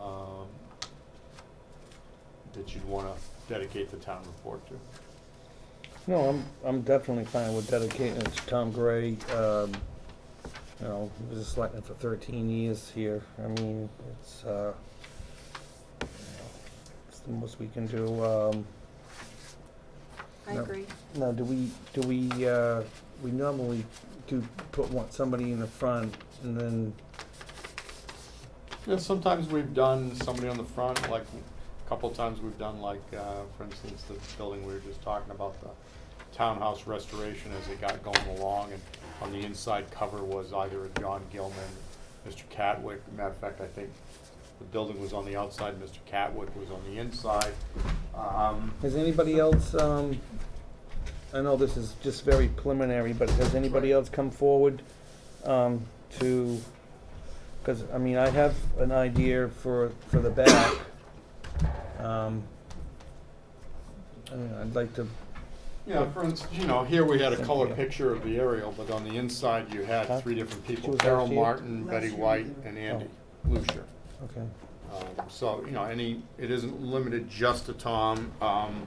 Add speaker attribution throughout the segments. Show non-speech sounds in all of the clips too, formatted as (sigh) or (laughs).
Speaker 1: um, that you'd wanna dedicate the town report to.
Speaker 2: No, I'm, I'm definitely fine with dedicating it to Tom Gray. Um, you know, he was a selectman for thirteen years here. I mean, it's, uh, you know, it's the most we can do. Um,
Speaker 3: I
Speaker 2: No.
Speaker 3: agree.
Speaker 2: now, do we, do we, uh, we normally do put one, somebody in the front and then,
Speaker 1: Yeah, sometimes we've done somebody on the front, like, a couple times we've done like, uh, for instance, the building we were just talking about, the townhouse restoration as it got going along, and on the inside cover was either a John Gilman, Mr. Catwick, matter of fact, I think the building was on the outside, Mr. Catwick was on the inside. Um,
Speaker 2: has anybody else, um, I know this is just very preliminary, but has anybody else come forward, um, to, cause, I mean, I have an idea for, for the back. Um, I mean, I'd like to,
Speaker 1: Yeah, for instance, you know, here we had a
Speaker 2: Thank
Speaker 1: color
Speaker 2: you.
Speaker 1: picture of the aerial, but on the inside you
Speaker 2: Huh?
Speaker 1: had three different
Speaker 2: She
Speaker 1: people,
Speaker 2: was
Speaker 1: Carol
Speaker 2: last year? Oh.
Speaker 1: Martin,
Speaker 3: Last
Speaker 1: Betty
Speaker 3: year we
Speaker 1: White,
Speaker 3: did.
Speaker 1: and Andy Lucier.
Speaker 2: okay,
Speaker 1: Um, So, you know, any, it isn't limited just to Tom. Um,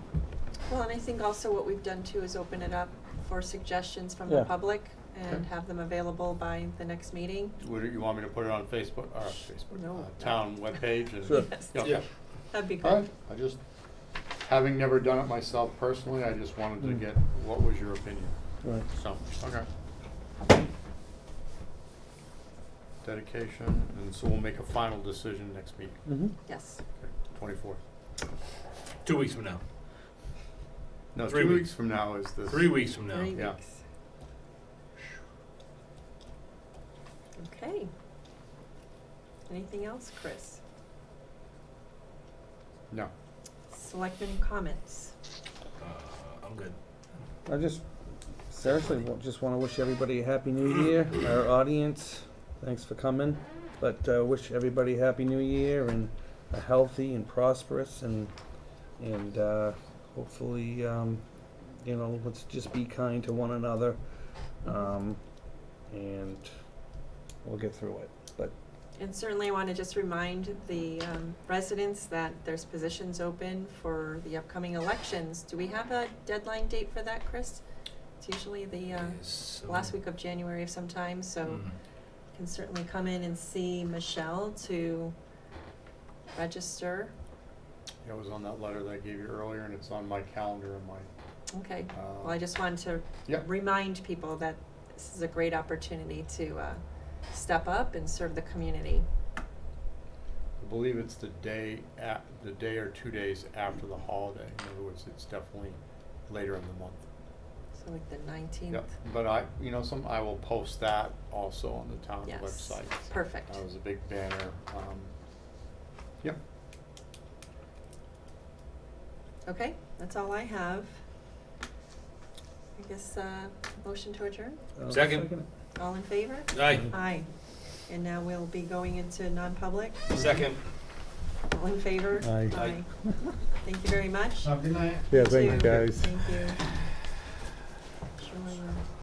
Speaker 3: Well, and I think also what we've done too is open it up for suggestions from the
Speaker 2: Yeah.
Speaker 3: public
Speaker 1: Okay.
Speaker 3: and have them available by the next meeting.
Speaker 1: Would, you want me to put it on Facebook, or Facebook,
Speaker 3: No.
Speaker 1: uh, town webpage? and-
Speaker 2: Sure.
Speaker 3: Yes.
Speaker 1: Yeah, Okay.
Speaker 3: That'd be
Speaker 1: All
Speaker 3: good.
Speaker 1: right, I just, having never done it myself personally, I just wanted to
Speaker 2: Mm.
Speaker 1: get, what was your opinion?
Speaker 2: right.
Speaker 1: So, okay. Dedication, and so we'll make a final decision next meeting,
Speaker 2: Mm-hmm.
Speaker 3: Yes.
Speaker 1: twenty-fourth.
Speaker 4: Two weeks from now.
Speaker 1: No,
Speaker 4: Three
Speaker 1: two
Speaker 4: weeks.
Speaker 1: weeks from now is this.
Speaker 4: Three weeks from now.
Speaker 3: Three
Speaker 1: Yeah.
Speaker 3: weeks. Okay. Anything else, Chris?
Speaker 1: No.
Speaker 3: Selectmen comments.
Speaker 4: Uh, I'm good.
Speaker 2: I just, seriously, wa- just wanna wish everybody a happy new year, our audience, thanks for coming. But, uh, wish everybody a happy new year and a healthy and prosperous and, and, uh, hopefully, um, you know, let's just be kind to one another. Um, and we'll get through it, but,
Speaker 3: And certainly I want to just remind the um, residents that there's positions open for the upcoming elections. Do we have a deadline date for that, Chris? It's usually the uh,
Speaker 4: Yes,
Speaker 3: last
Speaker 4: um,
Speaker 3: week of January of some time, so you
Speaker 1: Mm-hmm.
Speaker 4: mm.
Speaker 3: can certainly come in and see Michelle to register.
Speaker 1: It was on that letter that I gave you earlier, and it's on my calendar and my,
Speaker 3: Okay.
Speaker 1: uh.
Speaker 3: Well, I just wanted to
Speaker 1: Yeah.
Speaker 3: remind people that this is a great opportunity to uh, step up and serve the community.
Speaker 1: I believe it's the day at, the day or two days after the holiday. In other words, it's definitely later in the month.
Speaker 3: So like the 19th.
Speaker 1: Yep, but I, you know, some, I will post that also on the town
Speaker 3: Yes.
Speaker 1: website.
Speaker 3: Perfect.
Speaker 1: That was a big banner, um, yeah.
Speaker 3: Okay, that's all I have. I guess, uh, motion to adjourn,
Speaker 2: uh,
Speaker 4: Second.
Speaker 3: all in favor?
Speaker 4: Mm. Aye.
Speaker 3: Aye. And now we'll be going into non-public,
Speaker 4: Second.
Speaker 3: all in favor?
Speaker 2: Aye.
Speaker 3: Aye. (laughs) Thank you very much.
Speaker 1: good night.
Speaker 3: Yeah, thank you guys. Thank you. Sure, uh,